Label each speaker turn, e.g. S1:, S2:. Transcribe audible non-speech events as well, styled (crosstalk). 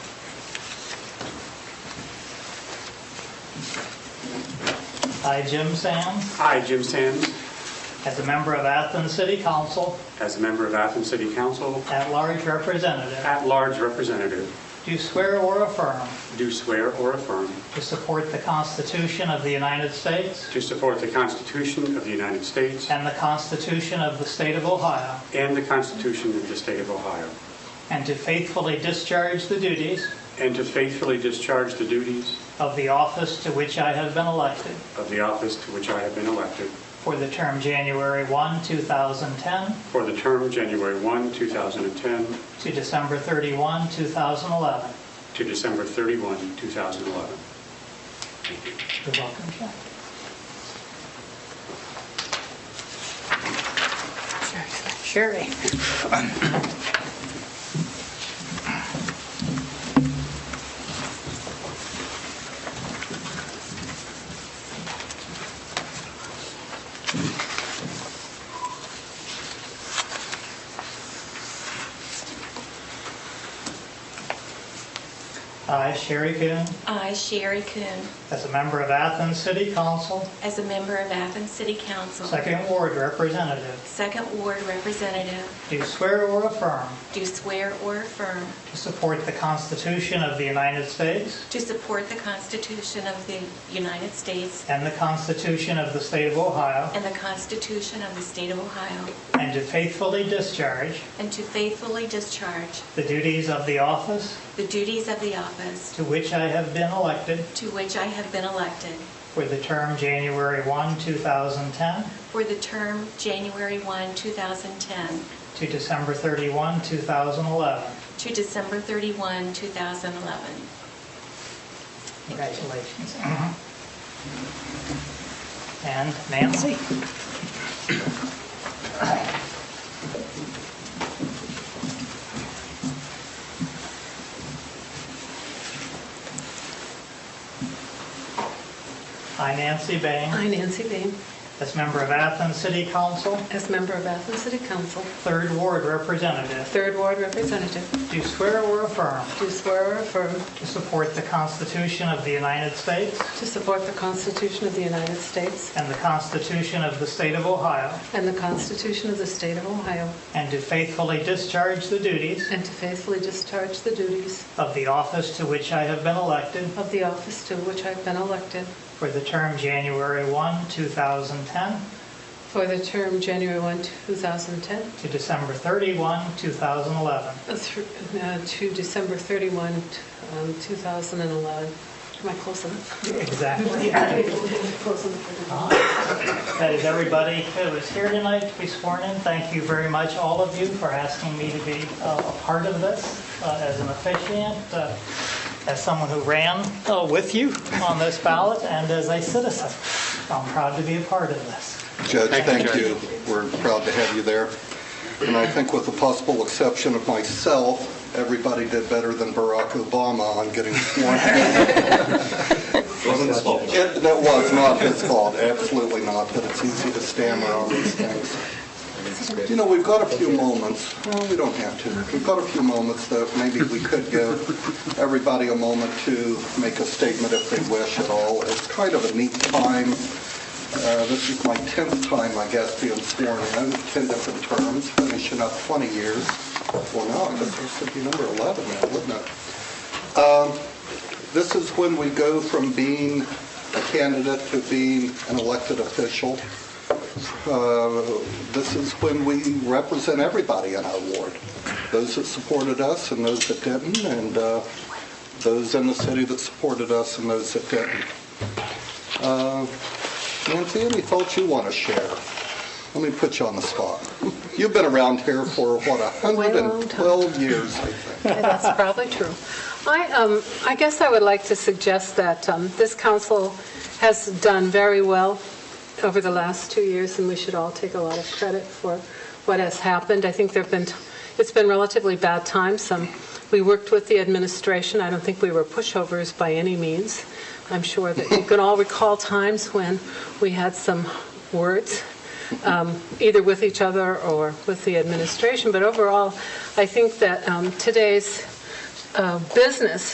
S1: I, Jim Sands,
S2: I, Jim Sands,
S1: as a member of Athens City Council,
S2: as a member of Athens City Council,
S1: at-large representative,
S2: at-large representative,
S1: do swear or affirm
S2: do swear or affirm
S1: to support the Constitution of the United States
S2: to support the Constitution of the United States
S1: and the Constitution of the State of Ohio,
S2: and the Constitution of the State of Ohio,
S1: and to faithfully discharge the duties
S2: and to faithfully discharge the duties
S1: of the office to which I have been elected
S2: of the office to which I have been elected
S1: for the term January 1, 2010
S2: for the term January 1, 2010
S1: to December 31, 2011.
S2: to December 31, 2011.
S1: You're welcome, Jack.
S3: Sherry.
S1: I, Sherry Coon,
S4: I, Sherry Coon,
S1: as a member of Athens City Council,
S4: as a member of Athens City Council,
S1: Second Ward Representative,
S4: Second Ward Representative,
S1: do swear or affirm
S4: do swear or affirm
S1: to support the Constitution of the United States
S4: to support the Constitution of the United States
S1: and the Constitution of the State of Ohio,
S4: and the Constitution of the State of Ohio,
S1: and to faithfully discharge
S4: and to faithfully discharge
S1: the duties of the office
S4: the duties of the office
S1: to which I have been elected
S4: to which I have been elected
S1: for the term January 1, 2010
S4: for the term January 1, 2010
S1: to December 31, 2011.
S4: to December 31, 2011.
S1: Congratulations. And Nancy? I, Nancy Bang,
S3: I, Nancy Bean,
S1: as member of Athens City Council,
S3: as member of Athens City Council,
S1: Third Ward Representative,
S3: Third Ward Representative,
S1: do swear or affirm
S3: do swear or affirm
S1: to support the Constitution of the United States
S3: to support the Constitution of the United States
S1: and the Constitution of the State of Ohio,
S3: and the Constitution of the State of Ohio,
S1: And to faithfully discharge the duties
S3: and to faithfully discharge the duties
S1: of the office to which I have been elected
S3: of the office to which I've been elected
S1: for the term January 1, 2010
S3: for the term January 1, 2010
S1: to December 31, 2011.
S3: uh, through- uh, to December 31, um, 2011. Am I close enough?
S1: Exactly.
S3: Close enough.
S1: That is everybody who is here tonight to be sworn in. Thank you very much, all of you, for asking me to be uh, a part of this uh, as an officiant, uh, as someone who ran uh, with you on this ballot, and as a citizen. I'm proud to be a part of this.
S5: Judge,
S2: Thank you,
S5: thank you. We're proud to have you there. And I think with the possible exception of myself, everybody did better than Barack Obama on getting sworn in.
S6: (laughs) Wasn't his fault.
S5: It- That was not his fault, absolutely not, but it's easy to stammer all these things. You know, we've got a few moments, well, we don't have to, we've got a few moments that maybe we could give everybody a moment to make a statement if they wish at all. It's kind of a neat time. Uh, This is my 10th time, I guess, being sworn in, 10 different terms, finishing up 20 years. Well, now I guess this would be number 11 now, wouldn't it? Um, This is when we go from being a candidate to being an elected official. Uh, This is when we represent everybody in our ward, those that supported us and those that didn't, and uh, those in the city that supported us and those that didn't. Uh, Nancy, any thoughts you want to share? Let me put you on the spot. You've been around here for, what,
S3: Quite a long time.
S5: 112 years, I think.
S3: Yeah, That's probably true. I, um, I guess I would like to suggest that um, this council has done very well over the last two years, and we should all take a lot of credit for what has happened. I think there've been, it's been relatively bad times. Um, We worked with the administration. I don't think we were pushovers by any means. I'm sure that you can all recall times when we had some words um, either with each other or with the administration. But overall, I think that um, today's uh, business